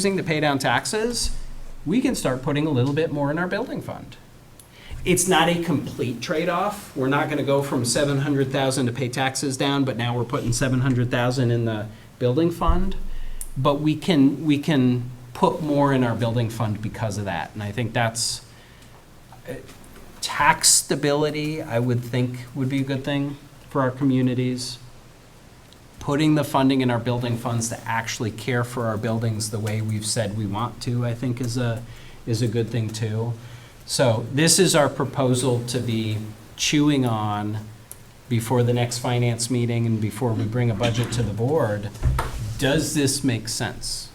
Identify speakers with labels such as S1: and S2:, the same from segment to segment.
S1: using to pay down taxes, we can start putting a little bit more in our building fund. It's not a complete trade-off. We're not gonna go from seven hundred thousand to pay taxes down, but now we're putting seven hundred thousand in the building fund. But we can, we can put more in our building fund because of that, and I think that's uh, tax stability, I would think, would be a good thing for our communities putting the funding in our building funds to actually care for our buildings the way we've said we want to, I think is a, is a good thing too. So this is our proposal to be chewing on before the next finance meeting and before we bring a budget to the board. Does this make sense?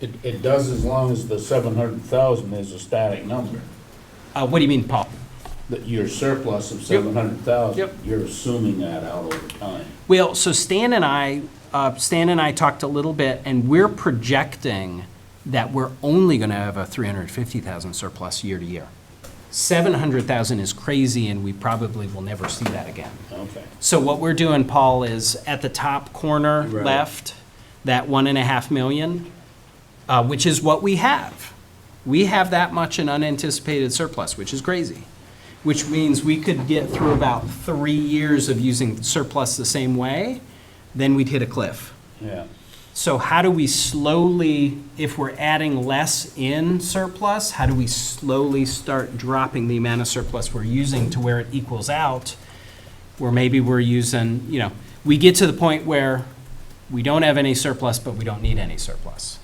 S2: It, it does as long as the seven hundred thousand is a static number,
S1: Uh, what do you mean, Paul?
S2: that your surplus of seven hundred thousand.
S1: Yep.
S2: You're assuming that out over time.
S1: Well, so Stan and I, uh, Stan and I talked a little bit, and we're projecting that we're only going to have a 350,000 surplus year to year. 700,000 is crazy, and we probably will never see that again.
S2: Okay.
S1: So what we're doing, Paul, is at the top corner
S2: Right.
S1: left, that one and a half million, uh, which is what we have. We have that much in unanticipated surplus, which is crazy, which means we could get through about three years of using surplus the same way, then we'd hit a cliff.
S2: Yeah.
S1: So how do we slowly, if we're adding less in surplus, how do we slowly start dropping the amount of surplus we're using to where it equals out? Where maybe we're using, you know, we get to the point where we don't have any surplus, but we don't need any surplus.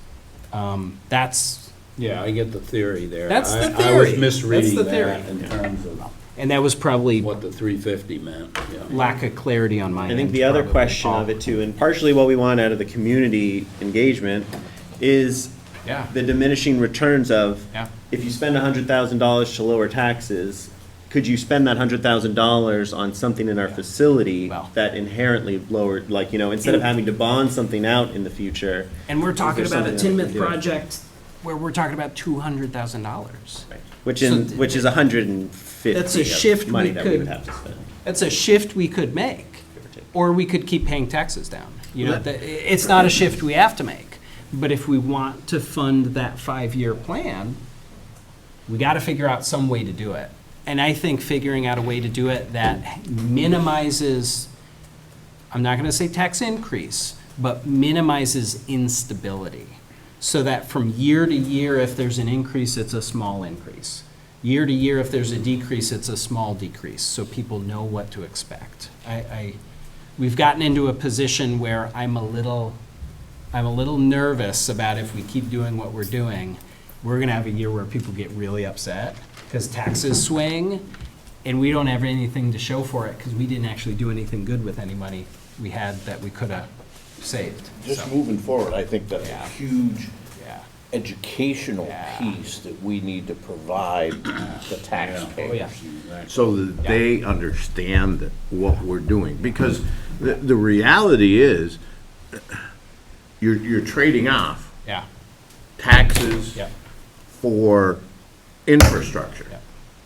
S1: Um, That's,
S2: Yeah, I get the theory there.
S1: That's the
S2: I- I was
S1: theory.
S2: misreading
S1: That's the
S2: that
S1: theory.
S2: in terms of
S1: and that was probably
S2: what the three fifty meant, yeah.
S1: lack of clarity on my
S3: I
S1: end.
S3: think the other
S1: probably,
S3: question
S1: Paul.
S3: of it too, and partially what we want out of the community engagement, is
S1: Yeah.
S3: the diminishing returns of,
S1: Yeah.
S3: if you spend hundred thousand dollars to lower taxes, could you spend that hundred thousand dollars on something in our facility
S1: Well.
S3: that inherently lowered, like, you know, instead of having to bond something out in the future?
S1: And we're talking
S3: Is
S1: about
S3: there
S1: a
S3: something that
S1: Tinmouth
S3: we can do?
S1: project where we're talking about $200,000.
S3: Which
S1: So
S3: in,
S1: th-
S3: which is a hundred and fifty
S1: That's a shift
S3: of money
S1: we
S3: that we
S1: could-
S3: would have to spend.
S1: That's a shift we could make, or we could keep paying taxes down. You know,
S3: Let-
S1: the- it's not a shift we have to make, but if we want to fund that five-year plan, we got to figure out some way to do it. And I think figuring out a way to do it that minimizes, I'm not going to say tax increase, but minimizes instability. So that from year to year, if there's an increase, it's a small increase. Year to year, if there's a decrease, it's a small decrease, so people know what to expect. I, I, we've gotten into a position where I'm a little, I'm a little nervous about if we keep doing what we're doing, we're gonna have a year where people get really upset because taxes swing and we don't have anything to show for it because we didn't actually do anything good with any money we had that we could have saved.
S4: Just
S1: So,
S4: moving forward, I think that's a
S1: Yeah.
S4: huge
S1: Yeah.
S4: educational
S1: Yeah.
S4: piece that we need to provide the
S1: Oh, yeah.
S4: taxpayers.
S2: Exactly.
S5: so that they understand that what we're doing. Because the, the reality is, you're, you're trading off
S1: Yeah.
S5: taxes
S1: Yep.
S5: for infrastructure,
S1: Yep.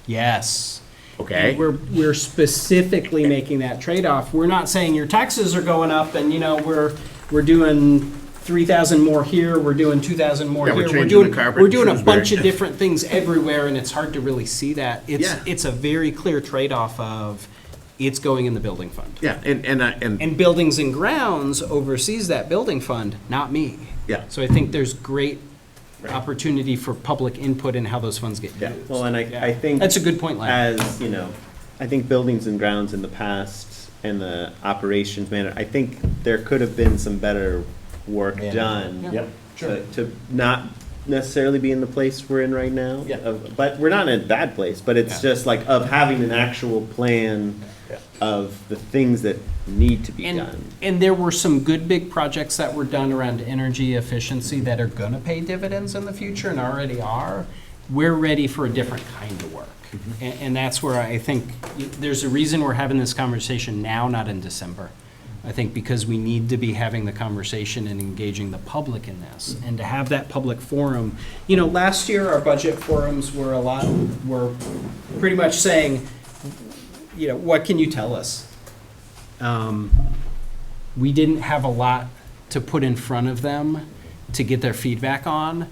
S1: Yes.
S5: okay?
S1: We're, we're specifically making that trade-off. We're not saying your taxes are going up and, you know, we're, we're doing three thousand more here, we're doing two thousand more
S5: Yeah,
S1: here.
S5: we're changing
S1: doing-
S5: the carpet
S1: We're
S5: in
S1: doing a
S5: Shrewsbury.
S1: bunch of different things everywhere and it's hard to really see that. It's,
S5: Yeah.
S1: it's a very clear trade-off of it's going in the building fund.
S5: Yeah, and, and, I- and,
S1: And Buildings and Grounds oversees that building fund, not me.
S5: Yeah.
S1: So I think there's great opportunity for public input in how those funds get
S5: Yeah.
S1: used.
S3: Well, and I, I think.
S1: That's a good point, Larry.
S3: As, you know, I think buildings and grounds in the past and the operations manager, I think there could have been some better work done.
S4: Yep,
S3: To, to not necessarily be in the place we're in right now.
S4: Yeah.
S3: of- But we're not in a bad place, but it's
S1: Yeah.
S3: just like of having an actual plan
S4: Yeah.
S3: of the things that need to be
S1: And,
S3: done.
S1: and there were some good big projects that were done around energy efficiency that are gonna pay dividends in the future and already are. We're ready for a different kind of work.
S3: Mm-hmm.
S1: And, and that's where I think, y- there's a reason we're having this conversation now, not in December. I think because we need to be having the conversation and engaging the public in this, and to have that public forum. You know, last year, our budget forums were a lot, were pretty much saying, you know, what can you tell us? um, we didn't have a lot to put in front of them. to get their feedback on